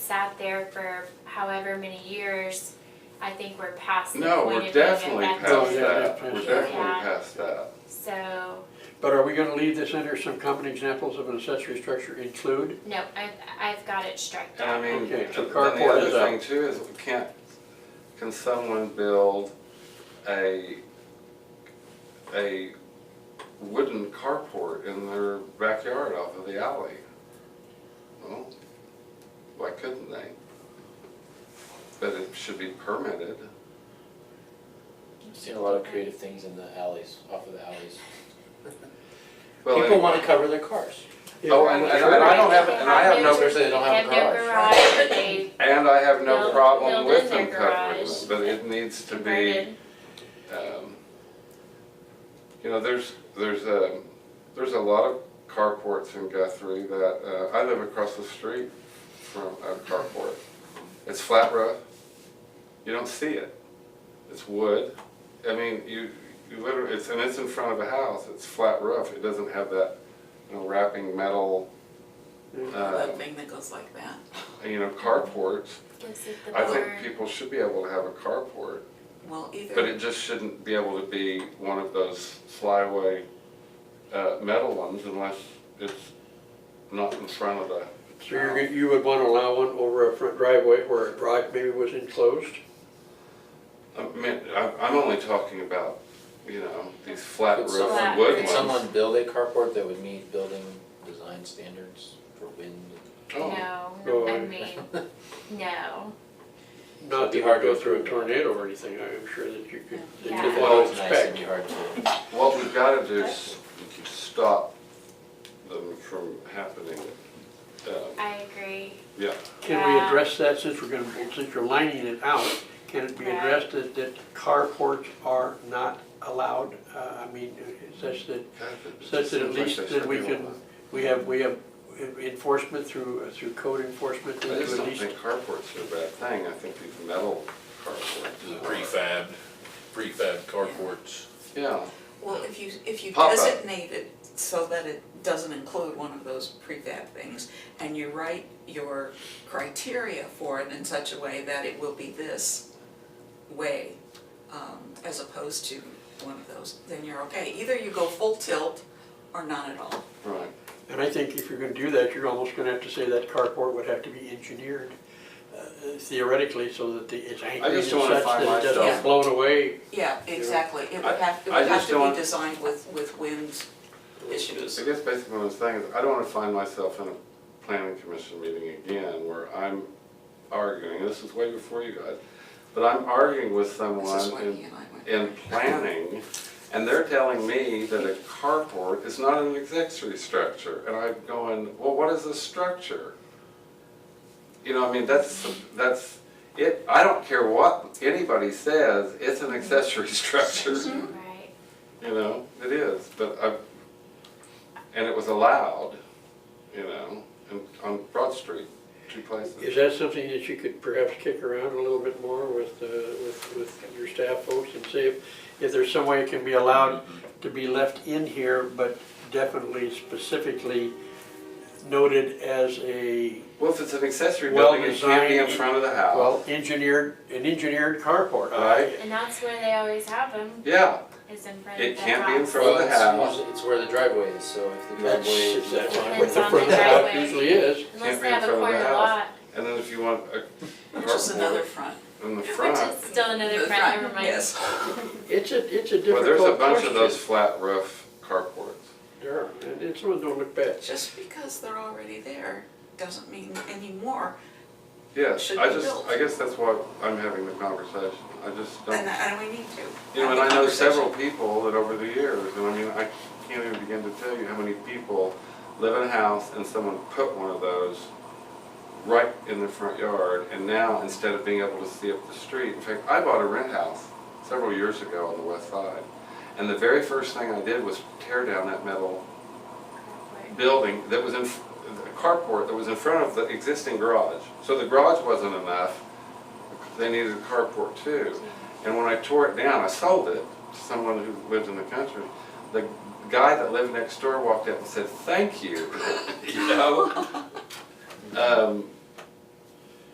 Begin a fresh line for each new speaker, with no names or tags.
sat there for however many years, I think we're past the point
No,
of
we're
being
definitely
effective.
past
yeah,
that,
yeah,
we're
yeah.
definitely
Yeah.
past that.
So,
But are we gonna leave this under some common examples of an accessory structure include?
no, I've, I've got it struck
And I
out.
mean,
Okay,
th-
so
then the
carport
other
is out.
thing too is we can't, can someone build a, a wooden carport in their backyard off of the alley? Well, why couldn't they? But it should be permitted.
I've seen a lot of creative things in the alleys, off of the alleys.
Well,
People
anyway.
wanna cover their cars.
Oh, and, and and I don't have, and I have no,
They don't have a
They
garage.
have no garage, they
and I have no
Build-
problem
build
with
in
them
their
covering them,
garage.
but it needs to be,
converted.
um, you know, there's, there's a, there's a lot of carports in Guthrie that, uh, I live across the street from a carport. It's flat roof, you don't see it, it's wood, I mean, you, you literally, it's, and it's in front of a house, it's flat roof, it doesn't have that, you know, wrapping metal, uh,
That thing that goes like that.
you know, carports.
Looks at the
I think
board.
people should be able to have a carport,
Well, either.
but it just shouldn't be able to be one of those flyaway, uh, metal ones unless it's not in front of the,
So you're, gonna- you would wanna allow one over a front driveway where a drive maybe was enclosed?
I mean, I'm, I'm only talking about, you know, these flat
Could
roof
someone-
wood
Could someone
ones.
build a carport that would meet building design standards for wind?
Oh,
No,
Oh.
I mean, no,
Not that
It'd
you
be hard
go
to-
through a tornado or anything, I'm sure that you could, that
Yeah.
you could
If it
Well,
all
was nice, it'd
expect.
be hard to,
what we've gotta do is stop them from happening. Um,
I agree.
Yeah,
Can we
Yeah.
address that since we're gonna, since you're lining it out? Can it be
Right.
addressed that, that carports are not allowed? Uh, I mean, such that
God, it just
Such that at
seems like
least
they
that we
should be
can,
able to-
we have, we have enforcement through, through code enforcement
I
that
just
to at
don't
least.
think carports are a bad thing, I think these metal
The
carports. are-
prefab, prefab carports.
Yeah,
Well, if you, if you
Pop up.
designate it so that it doesn't include one of those prefab things, and you write your criteria for it in such a way that it will be this way, um, as opposed to one of those, then you're okay. Either you go full tilt or not at all.
right.
And I think if you're gonna do that, you're almost gonna have to say that carport would have to be engineered uh, theoretically so that the, it's anchored in
just
such
don't wanna find
that it doesn't
myself-
blown away.
Yeah, exactly. It would have, it
I- I
would have
just don't-
to be designed with, with wind issues.
I guess basically what I'm saying is, I don't wanna find myself in a planning commission meeting again where I'm arguing, this is way before you guys, but I'm arguing with
This is
someone
why he
in,
and I went.
in planning, and they're telling me that a carport is not an accessory structure, and I'm going, well, what is a structure? You know, I mean, that's, that's, it, I don't care what anybody says, it's an accessory structure.
Mm-hmm.
Right.
You know, it is, but I, and it was allowed, you know, in, on Broad Street, two
Is
places.
that something that you could perhaps kick around a little bit more with, uh, with, with your staff folks and see if, if there's some way it can be allowed to be left in here, but definitely specifically noted as a
Well, if it's an accessory
Well
building, it can't be in
designed-
front of the house.
Well, engineered, an engineered carport,
Right.
I,
And that's where they always have them,
Yeah,
is in front
it
of the
can't be in
house.
front of the
well, it's
house.
usually, it's where the driveway is, so if the
that's,
driveway is.
is that
Depends
what the
on
front
the
half
driveway.
usually is.
Unless
Can't be
they
in
have a
front of the
corner
house.
lot,
And then if you want a
Which is another
carport
front.
in the
which
front,
is still another front, never mind.
Yes.
It's a, it's a
well, there's a
difficult question.
bunch of those flat roof carports.
There are, and it's one don't look bad.
Just because they're already there doesn't mean anymore.
Yes,
Should
I
be
just,
built.
I guess that's why I'm having the conversation. I just don't.
And, and we need to.
You know, and
have the
I know
conversation.
several people that over the years, and I mean, I can't even begin to tell you how many people live in a house and someone put one of those right in their front yard, and now instead of being able to see up the street, in fact, I bought a rent house several years ago on the west side, and the very first thing I did was tear down that metal building that was in, a carport that was in front of the existing garage. So the garage wasn't enough, they needed a carport too. And when I tore it down, I sold it to someone who lived in the country. The guy that lived next door walked up and said, thank you, you know? Um,